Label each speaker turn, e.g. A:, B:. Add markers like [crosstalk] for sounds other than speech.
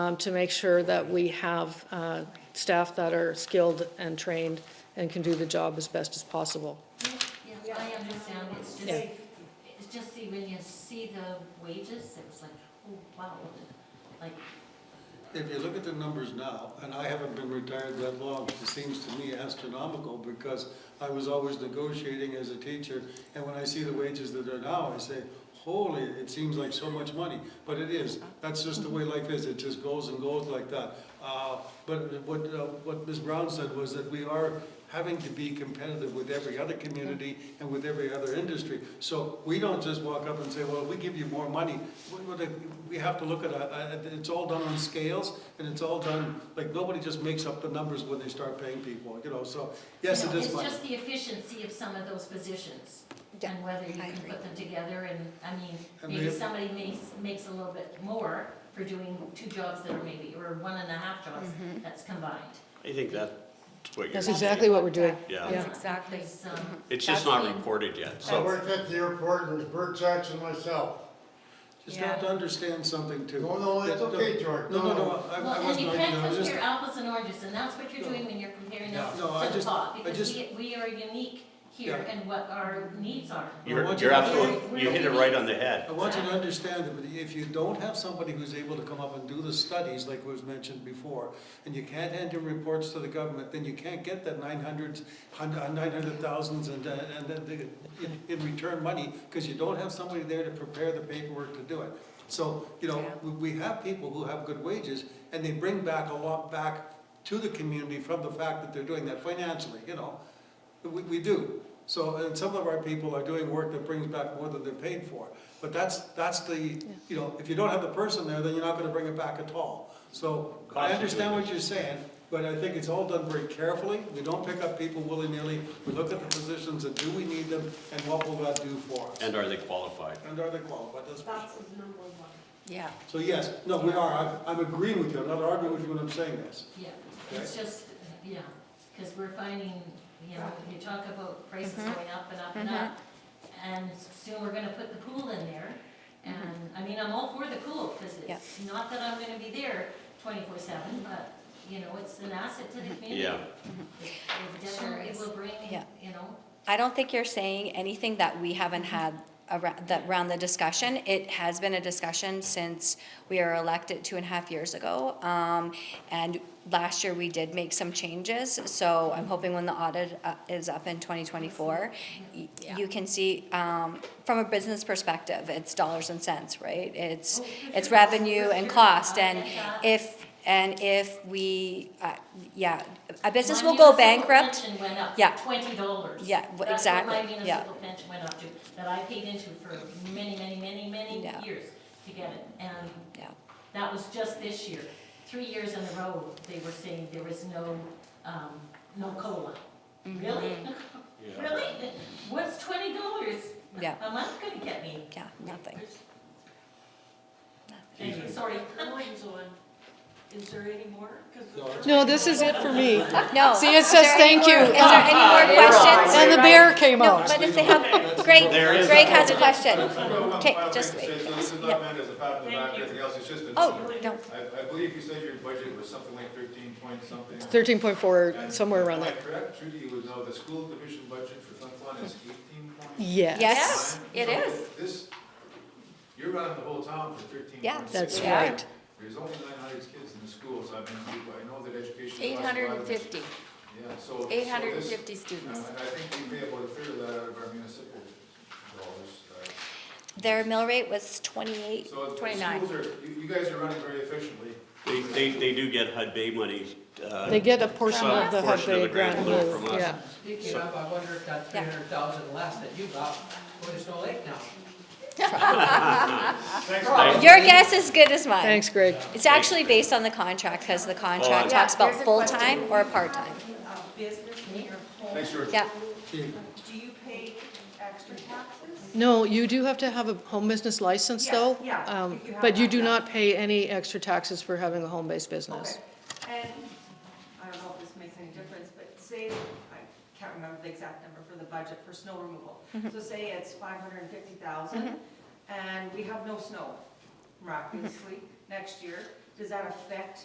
A: um, to make sure that we have uh, staff that are skilled and trained and can do the job as best as possible.
B: Yeah, I understand, it's just,
A: Yeah.
B: it's just see, when you see the wages, it was like, oh, wow, like,
C: If you look at the numbers now, and I haven't been retired that long, it seems to me astronomical because I was always negotiating as a teacher, and when I see the wages that are now, I say, holy, it seems like so much money, but it is. That's just the way life is, it just goes and goes like that. Uh, But what, uh, what Ms. Brown said was that we are having to be competitive with every other community and with every other industry. So we don't just walk up and say, well, we give you more money. We- we- We have to look at, a- a- it's all done on scales, and it's all done, like, nobody just makes up the numbers when they start paying people, you know, so, yes,
B: you
C: it
B: know,
C: is
B: It's
C: money.
B: just the efficiency of some of those positions.
D: Yeah,
B: And whether you
D: I
B: can
D: agree.
B: put them together and, I mean,
C: And
B: maybe
C: we-
B: somebody makes, makes a little bit more for doing two jobs that are maybe, or one and a half jobs that's combined.
E: I think that's what you're.
A: That's exactly what we're doing.
E: Yeah,
A: Yeah.
B: That's exactly. Because, um,
E: it's just
B: That's
E: not
B: me.
E: reported yet,
F: I
E: so,
F: worked at the airport and it was Bert Jackson myself.
C: Just have to understand something too.
F: No, no, it's
C: That-
F: okay, George.
C: No, no, no, I- I
B: Well, and
C: wasn't,
B: you
C: arguing, I
B: can't
C: was just,
B: compare apples and oranges, and that's what you're doing when you're comparing
C: No,
B: us
C: no, I
B: to the
C: just- I
B: pot, because
C: just-
B: we, we are unique here
C: Yeah.
B: and what our needs are.
C: I
E: you're,
C: want
E: you're
C: you to-
E: absolutely, you hit it right on the head.
C: I want you to understand that if you don't have somebody who's able to come up and do the studies, like was mentioned before, and you can't hand in reports to the government, then you can't get that nine hundreds, nine hundred thousands and, uh, and then the- in, in return money, because you don't have somebody there to prepare the paperwork to do it. So, you know, we, we have people who have good wages, and they bring back a lot back to the community from the fact that they're doing that financially, you know? We, we do. So, and some of our people are doing work that brings back more than they're paid for. But that's, that's the, you know, if you don't have the person there, then you're not gonna bring it back at all. So I
E: Cost of
C: understand
E: doing
C: what you're saying, but I think it's all done very carefully. We don't pick up people willy-nilly. We look at the positions and do we need them and what will that do for us?
E: And are they qualified?
C: And are they qualified? That's for sure.
D: Yeah.
C: So yes, no, we are. I'm, I'm agreeing with you. I'm not arguing with you when I'm saying this.
B: Yeah, it's just, yeah, because we're finding, you know, you talk about prices
D: Mm-hmm.
B: going up and up and up, and soon we're gonna put the pool in there, and,
D: Mm-hmm.
B: I mean, I'm all for the pool, because it's not that I'm gonna be there twenty-four seven, but, you know, it's an asset to the community.
E: Yeah.
B: It- It definitely
D: Mm-hmm. is.
B: will bring,
D: Yeah.
B: you know,
D: I don't think you're saying anything that we haven't had around, that, around the discussion. It has been a discussion since we were elected two and a half years ago. Um, and last year we did make some changes, so I'm hoping when the audit uh, is up in twenty twenty-four, you can see, um, from a business perspective, it's dollars and cents, right? It's,
B: Oh, for
D: it's
B: sure.
D: revenue
B: For
D: and
B: sure.
D: cost,
B: I
D: and
B: get that.
D: if, and if we, uh, yeah, a business
B: My
D: will go
B: municipal
D: bankrupt.
B: pension went up
D: Yeah.
B: Twenty dollars.
D: Yeah, w- exactly,
B: That's what my
D: yeah.
B: municipal pension went up to, that I paid into for many, many, many, many
D: Yeah.
B: years to get it. And
D: Yeah.
B: that was just this year. Three years in a row, they were saying there was no, um, no COLA.
G: Mm-hmm.
B: Really? Really? What's twenty dollars
D: Yeah.
B: a month gonna get me?
D: Yeah, nothing.
B: Anyway, Sorry.
H: Mine's on. Is there any more? 'Cause the
C: No, it's-
H: first
A: No, this is it for me. [laughs]
D: No.
A: See, it
D: Is there
A: says
D: any
A: thank you.
D: more- Is there any more questions?
A: And the bear came
D: No,
A: out.
D: but if they have, Greg,
E: There is-
D: Greg has a question. Okay,
I: I'll
D: just
I: make a
D: wait.
I: statement. This is
D: Yeah.
I: not meant as a pat on the back or anything else, it's just a.
D: Oh, no,
I: I, I believe you said your budget was something like thirteen point something.
A: Thirteen point four,
I: And
A: somewhere around
I: am I
A: there.
I: Correct, Trudy, you would know the school division budget for Flin Flon is eighteen point.
A: Yes,
D: Yes, it is.
I: This, you're running the whole town for thirteen point six.
D: Yeah,
A: that's
D: Yeah.
A: right.
I: There's only nine hundred kids in the schools, I mean, I know that education. costs a lot of-
G: Eight hundred and fifty.
I: Yeah, so. so
G: Eight hundred and
I: this-
G: fifty
I: you know,
G: students.
I: And I think we pay about a third of that out of our municipal dollars, uh,
D: Their mill rate was twenty-eight.
I: So the
G: 29.
I: schools are, you, you guys are running very efficiently.
E: They, they, they do get HUD Bay money, uh,
A: they get a portion
E: Some
A: of the HUD
E: portion of
A: Bay
E: the grant
A: grant,
E: will from us.
A: yeah.
J: Speaking of, I wonder if that three
D: Yeah.
J: hundred thousand less that you got, going to Snow Lake now?
I: Thanks,
D: Your guess is good as mine.
A: Thanks, Greg.
D: It's actually based on the contract, because the contract
E: Yeah,
D: talks about
G: there's a
D: full-time or part-time.
H: of Uh, business in your home,
I: Thanks, George.
D: Yeah,
H: do you pay extra taxes?
A: No, you do have to have a home business license,
H: Yeah,
A: though.
H: yeah,
A: um,
H: if you have
A: But you
H: that,
A: do
H: yeah.
A: not pay any extra taxes for having a home-based business.
H: Okay. And, I don't know if this makes any difference, but say, I can't remember the exact number for the budget for snow removal. So say it's five hundred and fifty thousand, and we have no snow, miraculously, next year. Does does that affect